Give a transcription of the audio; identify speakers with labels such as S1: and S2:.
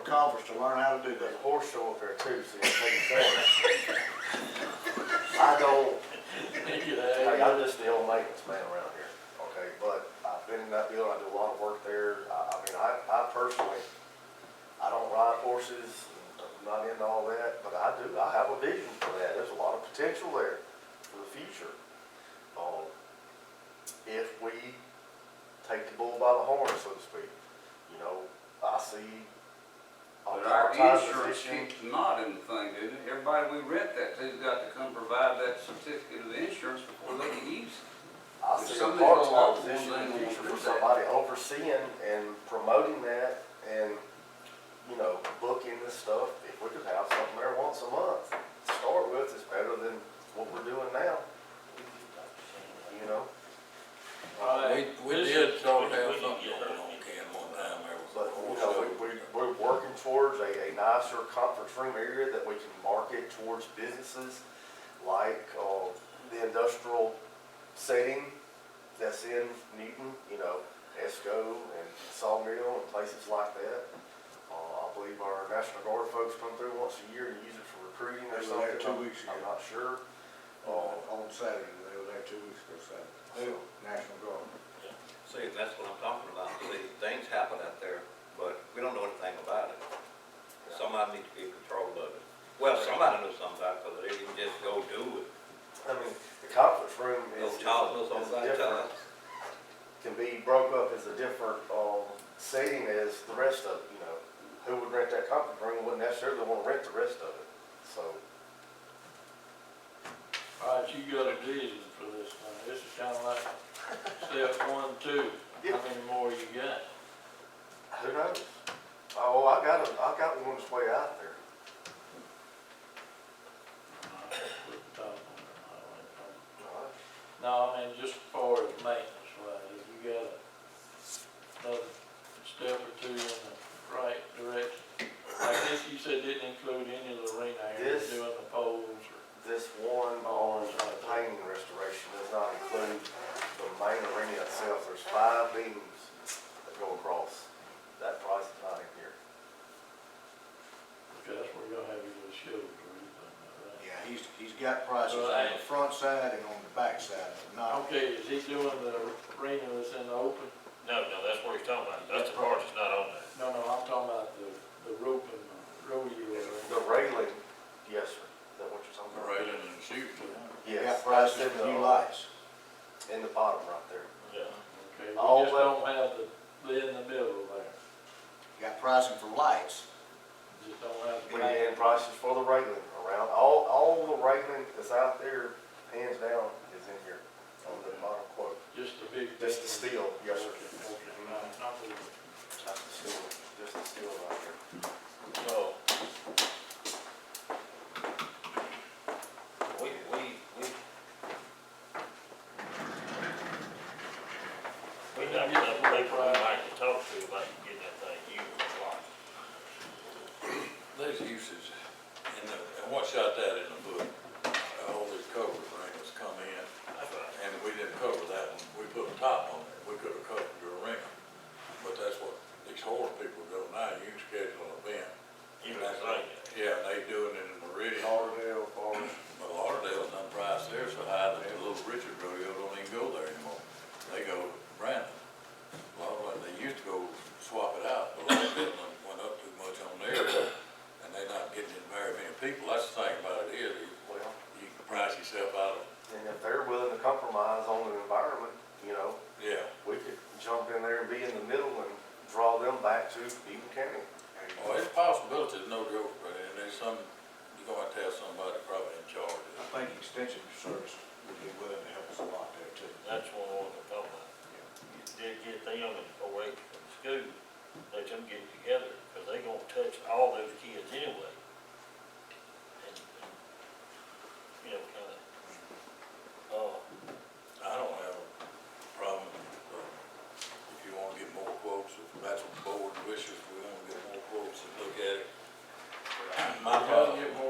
S1: Culvers to learn how to do
S2: There's a
S1: that.
S2: horse show up there too, so you'll
S1: I go,
S2: take care. I'm just the old maintenance man around here, okay? But I've been in that building, I do a lot of work there. I, I mean, I, I personally, I don't ride horses, I'm not into all that, but I do, I have a vision for that. There's a lot of potential there for the future. Um, if we take the bull by the horn, so to speak, you know, I see. a
S3: But our
S2: part-time
S3: insurance
S2: position-
S3: keeps not in the thing, does it? Everybody we rent that to's got to come provide that certificate of insurance before they can use it.
S2: I
S3: If
S2: see a
S3: somebody's
S2: part-time
S3: gonna walk the
S2: position
S3: one
S2: in the
S3: thing,
S2: future
S3: we'll
S2: for
S3: do that.
S2: somebody overseeing and promoting that and, you know, booking this stuff. If we could have something there once a month to start with, it's better than what we're doing now. You know,
S4: We, we did talk about something going on, Ken, one time there was.
S2: but, you know, we, we, we're working towards a, a nicer conference room area that we can market towards businesses like, uh, the industrial setting that's in Newton, you know, Esco and Sawmill and places like that. Uh, I believe our National Guard folks come through once a year and use it for recruiting or
S1: They were there
S2: something.
S1: two weeks
S2: I'm- I'm
S1: ago.
S2: not sure.
S1: oh,
S2: Uh,
S1: on Saturday, they were there two weeks ago Saturday, Who? National Guard.
S5: See, and that's what I'm talking about, see, things happen out there, but we don't know anything about it. Somebody needs to be in control of it. Well, somebody knows something about it, because they can just go do it,
S2: I mean, the conference room
S5: go
S2: is.
S5: talk us on
S2: is
S5: that
S2: different.
S5: time.
S2: can be broke up as a different, um, setting as the rest of, it, you know, who would rent that conference room wouldn't necessarily wanna rent the rest of it, so.
S6: All right, you got a vision for this one, this is kinda like step one, two,
S2: Yeah.
S6: how many more you got?
S2: Who knows? Oh, I got a, I got one that's way out there.
S6: No, I mean, just for the maintenance, right, if you got another step or two in the right direction. I guess you said didn't include any of the arena area,
S2: This-
S6: doing the poles or,
S2: This one on the painting restoration does not include the main arena itself, there's five beams that go across. That price is not in here.
S6: because that's where you'll have your little shows or anything, right?
S1: Yeah, he's, he's got prices on
S6: Right.
S1: the front side and on the back side, but not,
S6: Okay, is he doing the arena that's in the open?
S7: No, no, that's what he's talking about, that's the part that's not on there.
S6: No, no, I'm talking about the, the rope and the rodeo.
S2: The railing, yes, sir, is that what you're talking about?
S4: Railing and shooting.
S1: he
S2: Yes.
S1: got prices
S2: that's in
S1: for new
S2: the-
S1: lights.
S2: In the bottom right there.
S7: Yeah.
S6: Okay, we
S2: All
S6: just
S2: that-
S6: don't have the, the in the middle there.
S1: He got pricing for lights.
S6: Just don't have the.
S2: We had prices for the railing around, all, all the railing that's out there, hands down, is in here on the bottom quote.
S6: Just the big.
S2: Just the steel, yes, sir.
S6: Okay, okay, no, not the-
S2: That's the steel, just the steel right there.
S5: So. We, we, we.
S7: We got some people we like to talk to about getting that thing used a lot.
S4: These uses, and the, and what shot that in the book, all these cover rings come in,
S7: That's right.
S4: and we didn't cover that one, we put a top on it, we could have covered your ring. But that's what these horror people do now, you can schedule an event.
S7: You know, it's like,
S4: Yeah, and they doing it in Meridian,
S2: Lauderdale, Forest.
S4: But Lauderdale done priced there so high that the Little Richard rodeo don't even go there anymore. They go to Brandon. Lauderdale, they used to go swap it out, but Lauderdale done went up too much on there. And they not getting in very many people. That's the thing about it is, you-
S2: Well,
S4: you can price yourself out of,
S2: and if they're willing to compromise on the environment, you know,
S4: yeah.
S2: we could jump in there and be in the middle and draw them back to Eden County. Oh,
S4: Well, Oh, it's a possibility, there's no joke, but and there's some, you're gonna have to have somebody probably in charge of
S1: I
S4: it.
S1: think extension service would be willing to help us a lot there too.
S7: that's what we're gonna talk about. Get, get them away from school, let them get together, because they gonna touch all those kids anyway. And, and, You know, kinda, uh,
S4: I don't have a problem, uh, if you wanna get more quotes, if that's what the board wishes, we wanna get more quotes and look at it.
S6: We
S4: My
S6: gotta get
S4: problem,
S7: uh,